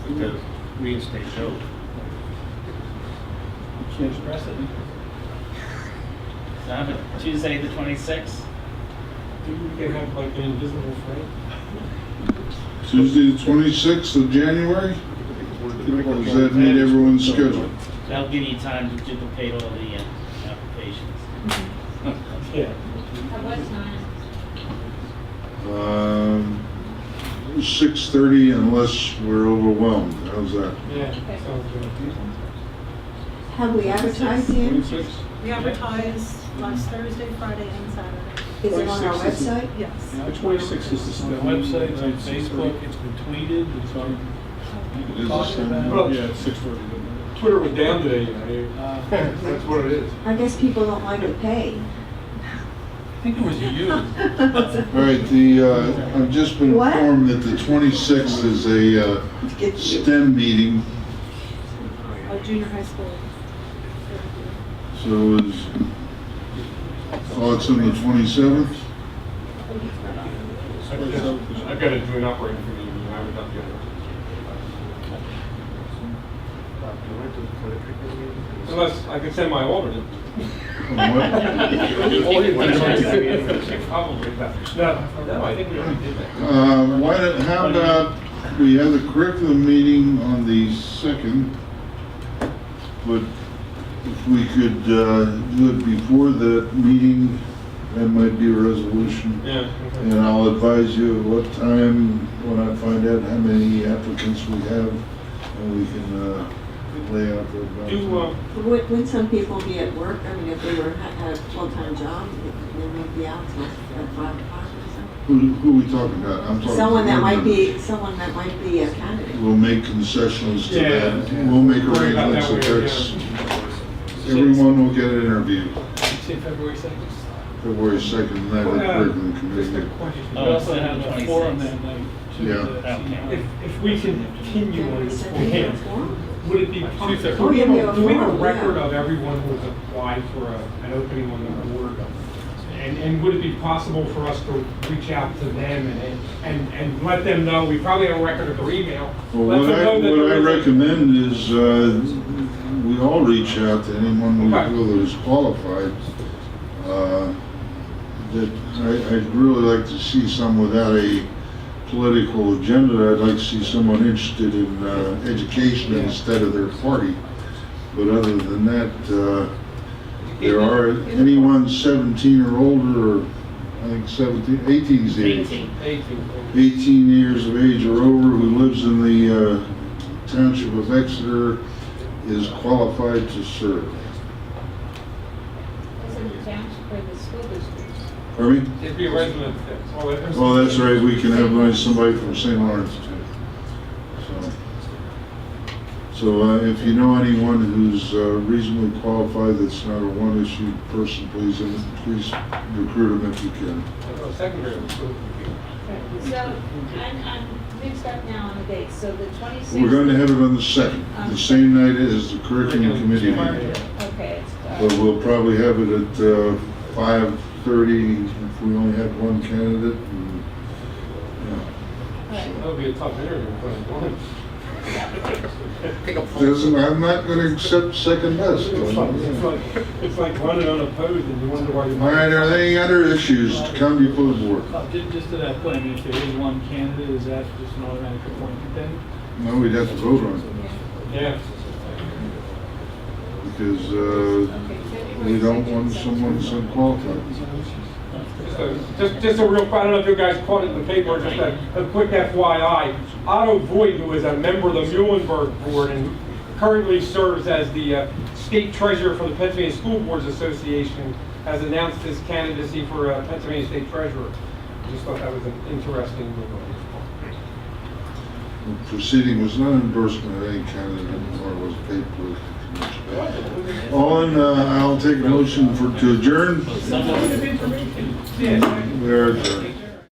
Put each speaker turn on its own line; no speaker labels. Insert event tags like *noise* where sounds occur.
to reinstate Joe.
Change precedent.
So, but Tuesday, the twenty-sixth?
Didn't we have like an invisible friend?
Tuesday, the 26th of January? Or does that meet everyone's schedule?
That'll give you time to duplicate all the uh, applications.
Yeah.
At what time?
Um, 6:30 unless we're overwhelmed. How's that?
Yeah, sounds good.
Have we advertised yet?
Twenty-six?
We advertised last Thursday, Friday, and Saturday.
Is it on our
26 is the-
website?
Yes.
The twenty-six is the
The
study.
website's on Facebook, it's been tweeted, it's on.
It is the same.
Well,
Yeah, six forty.
Twitter was down today, you know. *laughs* uh, That's what it is.
I guess people don't like to pay.
I think it was you.
All right, the, uh, I've just been
What?
informed that the 26th is a uh,
Get you.
STEM meeting,
Our junior high school.
so is, thoughts on the 27th?
I've got to do an operating committee, and I would not be able to. Unless I could send my *laughs* alternate.
What?
Probably, but- No, no, I think we already did that.
Uh, Why, don't- how about, we have the curriculum meeting on the 2nd, but if we could uh, do it before that meeting, that might be a resolution.
Yeah. okay.
And I'll advise you at what time, when I find out how many applicants we have, and we can uh, lay out the.
Do, uh,
*laughs* Would, would some people be at work? I mean, if they were, had a full-time job, they might be out till uh, five o'clock or something.
Who, who are we talking about? I'm talking.
Someone that might be, someone that might be a candidate.
We'll make concessions to that.
Yeah.
We'll make
uh, Worry about
arrangements if
that way,
there's,
yeah.
everyone will get an interview.
Say February second?
February 2nd, that
Well, uh,
curriculum
Just a
committee.
question. We
Oh,
also
it's
have
the
a forum
26th.
that night. to
Yeah.
the-
Okay.
If, if we continue on this
Yeah.
forum, would it be possible?
Oh, yeah, we have a
Do we have a
forum, yeah.
record of everyone who has applied for a, an opening on the board? And, and would it be possible for us to reach out to them and, and, and let them know, we probably have a record of their email.
Well,
let
what
them
I,
know that
what I
there is a-
recommend is, uh, we all reach out to anyone we
Okay.
feel that is qualified. Uh, That, I, I'd really like to see some without a political agenda. I'd like to see someone interested in, uh, education
Yeah.
instead of their party. But other than that, uh, there are, anyone seventeen or older, or I think seventeen, eighteen's the age.
Eighteen.
Thank you.
18 years of age or over who lives in the uh, township of Exeter is qualified to serve.
Those are the township for the school district.
Pardon me?
It'd be a resident, that's all that is.
Oh, that's right, we can have like, somebody from St. Lawrence too. So- So uh, if you know anyone who's uh, reasonably qualified that's not a one-issue person, please, uh, please recruit them if you can.
Oh, Secondary.
So I'm, I'm mixed up now on the dates. So the 26th.
We're going to have it on the second, the same night as the curriculum committee meeting.
Okay, it's, uh,
But we'll probably have it at uh, 5:30 if we only have one candidate. and, yeah.
all right.
That would be a tough interview, but.
*laughs* Doesn't, I'm not gonna accept second best.
It's like, it's
All
like, it's like running unopposed and you wonder why you.
right, are there any other issues to come before the board?
Uh, ju- Just to that point, I mean, if there is one candidate, is that just an automatic appointment then?
No, we'd have to vote on it
Yeah.
because uh, we don't want someone that's unqualified.
Just a- Just, just a real, I don't know if you guys caught it in the paper, just a, a quick FYI. Otto Voigt, who is a member of the Muhlenberg Board and currently serves as the uh, state treasurer for the Pennsylvania School Boards Association, has announced his candidacy for uh, Pennsylvania State Treasurer. I Just thought that was an interesting move.
The proceeding was not endorsement of any candidate nor was paid for. All in, uh, I'll take a motion for, to adjourn.
Someone-
We are adjourned.